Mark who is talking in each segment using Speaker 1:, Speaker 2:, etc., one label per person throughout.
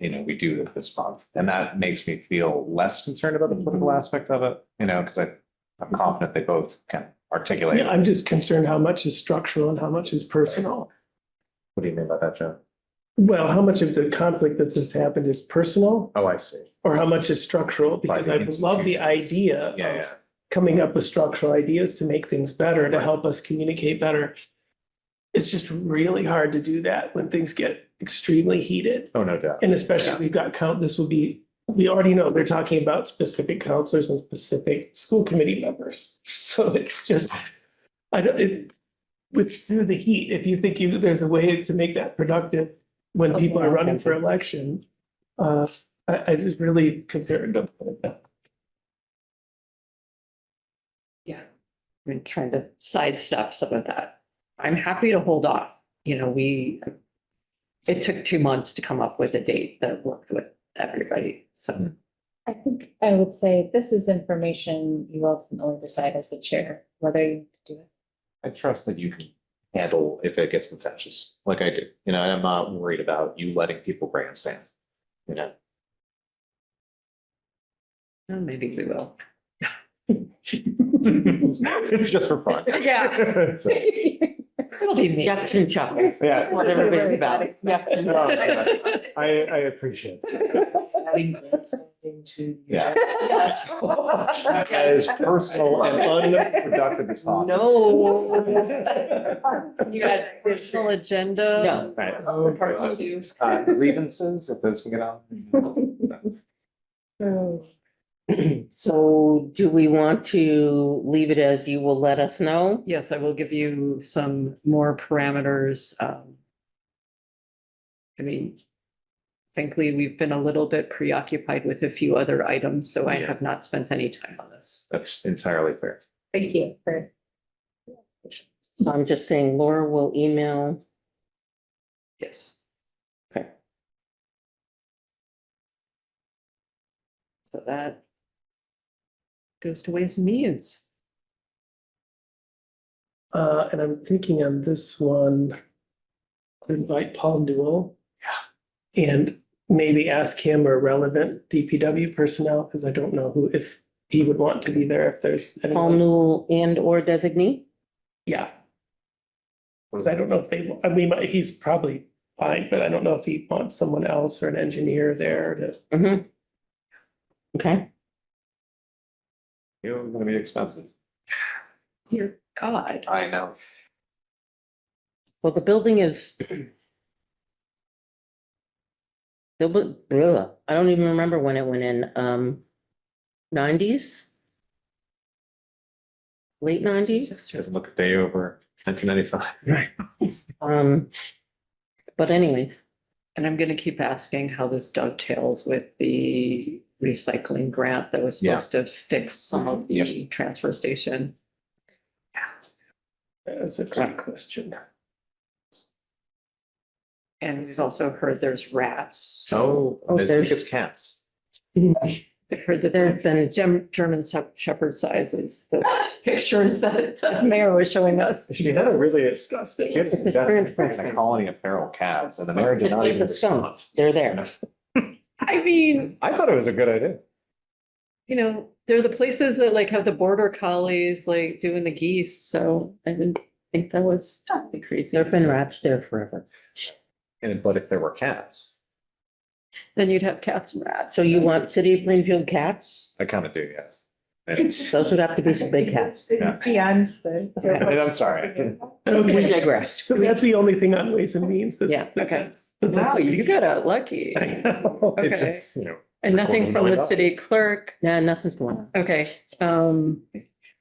Speaker 1: you know, we do it this month. And that makes me feel less concerned about the political aspect of it, you know, because I, I'm confident they both can articulate.
Speaker 2: Yeah, I'm just concerned how much is structural and how much is personal.
Speaker 1: What do you mean by that, Joe?
Speaker 2: Well, how much of the conflict that's just happened is personal
Speaker 1: Oh, I see.
Speaker 2: or how much is structural? Because
Speaker 1: the
Speaker 2: I love the
Speaker 1: institutions.
Speaker 2: idea
Speaker 1: Yeah, yeah.
Speaker 2: of coming up with structural ideas to make things better, to help us communicate better. It's just really hard to do that when things get extremely heated.
Speaker 1: Oh, no doubt.
Speaker 2: And especially we've got count, this will be, we already know they're talking about specific counselors and specific school committee members. So it's just, I don't, it, with through the heat, if you think you, there's a way to make that productive when people are running for election, uh, I, I just really concerned about that.
Speaker 3: and trying to sidestep some of that. I'm happy to hold off, you know, we, it took two months to come up with a date that worked with everybody, so.
Speaker 4: I think I would say this is information you ultimately decide as the chair, whether you do it.
Speaker 1: I trust that you can handle if it gets contentious, like I do, you know, and I'm not worried about you letting people grandstand. You know,
Speaker 3: uh, Maybe we will.
Speaker 1: it's just for fun.
Speaker 3: Yeah.
Speaker 1: So-
Speaker 3: It'll be me.
Speaker 5: Yups and chuckles.
Speaker 1: Yeah.
Speaker 5: That's what everybody's about. Yups
Speaker 3: Oh,
Speaker 5: and
Speaker 1: No,
Speaker 5: chuckles.
Speaker 1: I, I appreciate it. Yeah.
Speaker 3: Yes.
Speaker 1: As personal and unproductive as possible.
Speaker 5: No.
Speaker 3: You got additional agenda?
Speaker 5: No.
Speaker 1: Right.
Speaker 3: Or Part two.
Speaker 1: Uh, grievances, if those can get on.
Speaker 4: Oh,
Speaker 5: So do we want to leave it as you will let us know?
Speaker 3: Yes, I will give you some more parameters. um, I mean, frankly, we've been a little bit preoccupied with a few other items, so I
Speaker 1: Yeah.
Speaker 3: have not spent any time on this.
Speaker 1: That's entirely fair.
Speaker 4: Thank you for.
Speaker 5: I'm just saying Laura will email.
Speaker 3: Yes.
Speaker 5: Okay.
Speaker 3: So that goes to ways and means.
Speaker 2: Uh, and I'm thinking on this one, I'll invite Paul Newell. Yeah. And maybe ask him or relevant DPW personnel, because I don't know who, if he would want to be there if there's.
Speaker 5: Paul
Speaker 2: anyone-
Speaker 5: Newell and or designee?
Speaker 2: Yeah, because I don't know if they, I mean, he's probably fine, but I don't know if he wants someone else or an engineer there to.
Speaker 5: Mm-hmm. Okay,
Speaker 1: You're gonna be expensive.
Speaker 3: Dear God.
Speaker 1: I know.
Speaker 5: well, the building is. The bu- ugh, I don't even remember when it went in, um, nineties? Late nineties?
Speaker 1: Doesn't look a day over nineteen ninety-five.
Speaker 5: Right. Um, but anyways,
Speaker 3: And I'm gonna keep asking how this dovetails with the recycling grant that was
Speaker 1: Yeah.
Speaker 3: supposed to fix some of the transfer station.
Speaker 2: That's a great question.
Speaker 3: And we've also heard there's rats.
Speaker 1: So,
Speaker 5: Oh,
Speaker 1: as big
Speaker 5: there's-
Speaker 1: as cats.
Speaker 3: I've heard that
Speaker 5: there's
Speaker 3: there's
Speaker 5: been,
Speaker 3: Gem- German Shep- shepherd sizes, the pictures that the mayor was showing us.
Speaker 2: She had a really disgusting.
Speaker 1: Kids
Speaker 5: It's a
Speaker 1: in Denver,
Speaker 5: different
Speaker 1: in a
Speaker 5: question.
Speaker 1: colony of feral cats and the mayor did
Speaker 5: It's
Speaker 1: not
Speaker 5: like
Speaker 1: even
Speaker 5: the skunk.
Speaker 1: respond.
Speaker 5: they're there.
Speaker 3: I mean,
Speaker 1: I thought it was a good idea.
Speaker 3: you know, they're the places that like have the border collies, like doing the geese, so I didn't think that was crazy.
Speaker 5: There've been rats there forever.
Speaker 1: And but if there were cats,
Speaker 3: Then you'd have cats and rats.
Speaker 5: So you want City of Plainfield cats?
Speaker 1: I kind of do, yes.
Speaker 5: Those would have to be some big cats.
Speaker 1: Yeah.
Speaker 4: Beyond the.
Speaker 1: And I'm sorry.
Speaker 5: We digress.
Speaker 2: So that's the only thing on ways and means this.
Speaker 5: Yeah,
Speaker 3: okay. Wow, you got out lucky.
Speaker 2: I know.
Speaker 1: It's
Speaker 3: Okay.
Speaker 1: just, You know,
Speaker 3: And nothing
Speaker 1: Recording
Speaker 3: from the
Speaker 1: going up.
Speaker 3: city clerk.
Speaker 5: Nah, nothing's going on.
Speaker 3: Okay, um,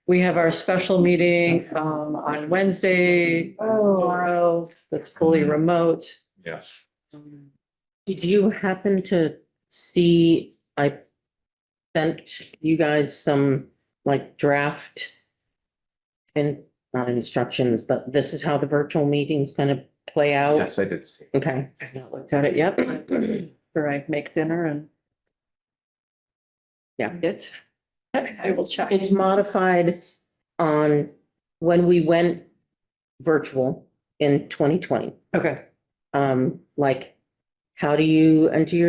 Speaker 3: we have our special meeting, um, on Wednesday,
Speaker 4: Oh,
Speaker 3: tomorrow, that's fully remote.
Speaker 1: yeah.
Speaker 3: Um,
Speaker 5: Did you happen to see, I sent you guys some like draft and not instructions, but this is how the virtual meeting's gonna play out?
Speaker 1: Yes, I did see.
Speaker 5: Okay,
Speaker 3: I've not looked at it yet, or I make dinner and
Speaker 5: Yeah.
Speaker 3: it, I will check.
Speaker 5: it's modified on when we went virtual in twenty twenty.
Speaker 3: Okay.
Speaker 5: Um, like, how do you enter your